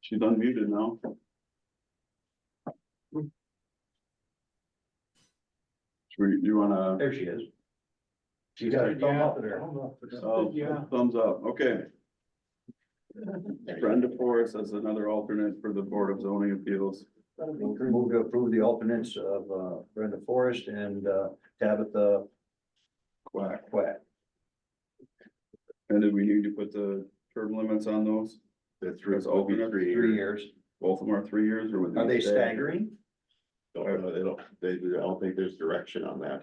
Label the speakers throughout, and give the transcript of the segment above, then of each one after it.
Speaker 1: She's unmuted now. Should we, you wanna?
Speaker 2: There she is.
Speaker 3: You
Speaker 2: She's got her thumb up there.
Speaker 1: Oh, thumbs up, okay. Brenda Forrest as another alternate for the Board of Zoning Appeals.
Speaker 2: Move to approve the alternates of uh, Brenda Forrest and uh, Tabitha
Speaker 1: Quack.
Speaker 2: Quack.
Speaker 1: And did we need to put the term limits on those?
Speaker 4: The three
Speaker 1: That's
Speaker 4: would be
Speaker 1: alternate,
Speaker 4: three
Speaker 2: Three
Speaker 4: years.
Speaker 2: years.
Speaker 1: Both of them are three years or would?
Speaker 2: Are they staggering?
Speaker 4: Don't know, they don't, they, I don't think there's direction on that.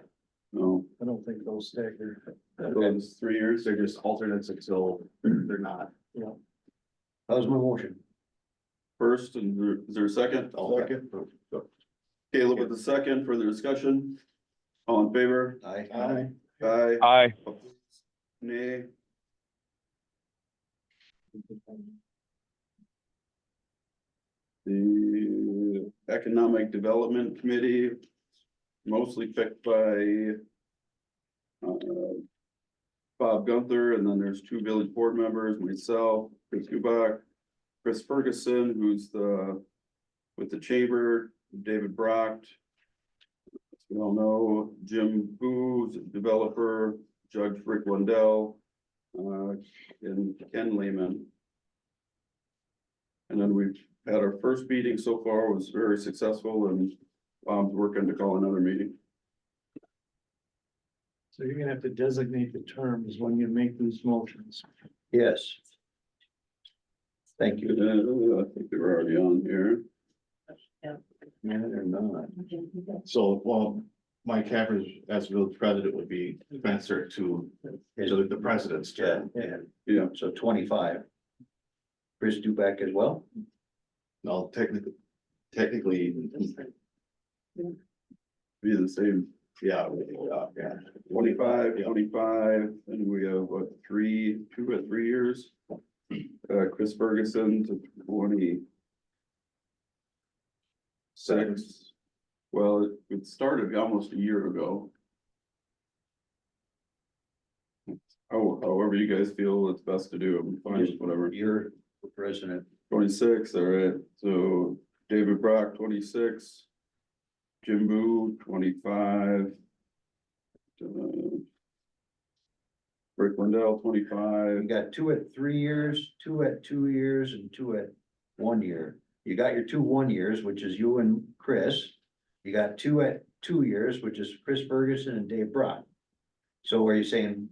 Speaker 1: No,
Speaker 2: I don't think those stagger.
Speaker 1: so it's three years.
Speaker 4: They're just alternates until they're not.
Speaker 2: That was my motion.
Speaker 1: First, and there- is there a second? Caleb with the second, further discussion. All in favor?
Speaker 2: Aye.
Speaker 4: Aye.
Speaker 1: Aye.
Speaker 5: Aye.
Speaker 1: Nay. The Economic Development Committee, mostly picked by uh, Bob Gunther, and then there's two village board members, myself, Chris Kubak, Chris Ferguson, who's the with the chamber, David Brock. As we all know, Jim Booz, developer, Judge Rick Lundell, uh, and Ken Lehman. And then we've had our first meeting so far was very successful and Bob's working to call another meeting.
Speaker 3: So you're gonna have to designate the terms when you make these motions.
Speaker 2: Yes. Thank you.
Speaker 1: Uh, I think they were already on here.
Speaker 2: Yeah, they're not.
Speaker 4: So, well, Mike Havers as village president would be commensurate to, to the president's
Speaker 2: Yeah,
Speaker 4: term.
Speaker 2: yeah.
Speaker 1: Yeah.
Speaker 2: So twenty-five. Chris Duback as well?
Speaker 4: No, technically, technically,
Speaker 1: Be the same
Speaker 4: yeah, yeah, yeah.
Speaker 1: twenty-five,
Speaker 4: Yeah.
Speaker 1: twenty-five, and we have what, three, two or three years? Uh, Chris Ferguson to twenty. Six, well, it- it started almost a year ago. Oh, however you guys feel it's best to do, I'm fine, with whatever.
Speaker 2: You're the president.
Speaker 1: Twenty-six, all right, so David Brock, twenty-six. Jim Boo, twenty-five. uh, Rick Lindell,
Speaker 2: You
Speaker 1: twenty-five,
Speaker 2: got two at three years, two at two years, and two at one year. You got your two one years, which is you and Chris. You got two at two years, which is Chris Ferguson and Dave Brock. So are you saying?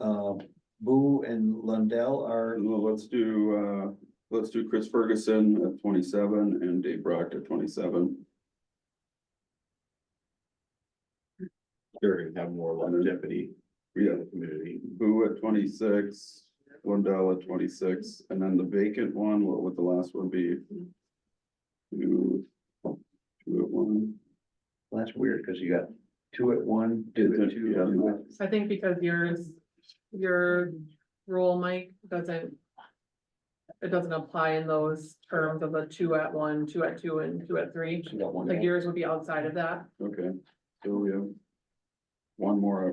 Speaker 2: Uh, Boo and Lundell are,
Speaker 1: Well, let's do, uh, let's do Chris Ferguson at twenty-seven and Dave Brock at twenty-seven.
Speaker 4: Sure, and have more
Speaker 2: Mm-hmm.
Speaker 4: longevity
Speaker 1: We
Speaker 4: in
Speaker 1: have
Speaker 4: the community.
Speaker 1: Boo at twenty-six, Lindell at twenty-six, and then the vacant one, what would the last one be? Two, two at one.
Speaker 2: well, that's weird, cause you got two at one, two at two.
Speaker 1: Yeah.
Speaker 2: two at-
Speaker 6: I think because yours, your role, Mike, doesn't. It doesn't apply in those terms of the two at one, two at two and two at three.
Speaker 2: You got one
Speaker 6: Like
Speaker 2: at-
Speaker 6: yours would be outside of that.
Speaker 1: Okay, so we have one more,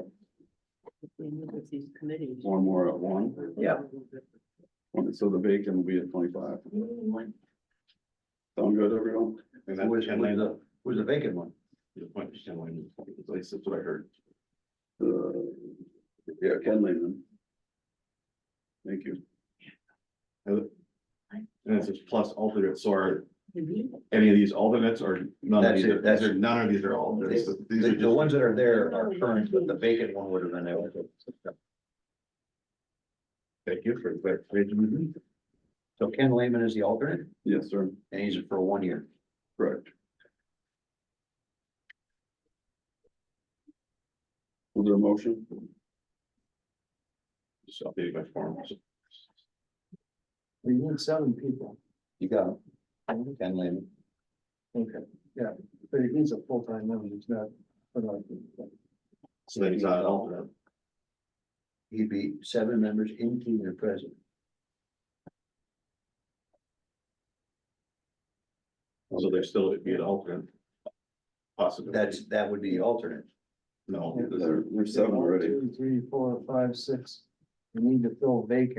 Speaker 1: at-
Speaker 7: We meet with these committees.
Speaker 1: one more at one,
Speaker 6: Yeah.
Speaker 1: One- so the bacon will be at twenty-five. Sound good, everyone?
Speaker 4: And
Speaker 2: Who was,
Speaker 4: that's
Speaker 2: who was the, who was the vacant one?
Speaker 4: the point, is, at least that's what I heard.
Speaker 1: Uh, yeah, Ken Lehman. Thank you.
Speaker 4: And it's just plus alternate, so are any of these alternates or none of
Speaker 2: That's
Speaker 4: these,
Speaker 2: it,
Speaker 4: are-
Speaker 2: that's-
Speaker 4: none of these are alternates. These
Speaker 2: The,
Speaker 4: are
Speaker 2: the
Speaker 4: just-
Speaker 2: ones that are there are current, but the vacant one would have been there.
Speaker 4: Thank you for the clarification.
Speaker 2: So Ken Lehman is the alternate,
Speaker 1: Yes, sir,
Speaker 2: and he's for one year.
Speaker 1: correct. Was there a motion?
Speaker 4: Just updating my forms.
Speaker 3: We need seven people,
Speaker 2: You got him. Ken Lehman.
Speaker 3: but he's a full-time member, he's not.
Speaker 4: So then he's not an alternate.
Speaker 2: He'd be seven members, including the president.
Speaker 4: So there still would be an alternate. Possibly.
Speaker 2: That's, that would be the alternate.
Speaker 4: No.
Speaker 1: There, there's seven already.
Speaker 3: One, two, Three, four, five, six. We need to fill vacant.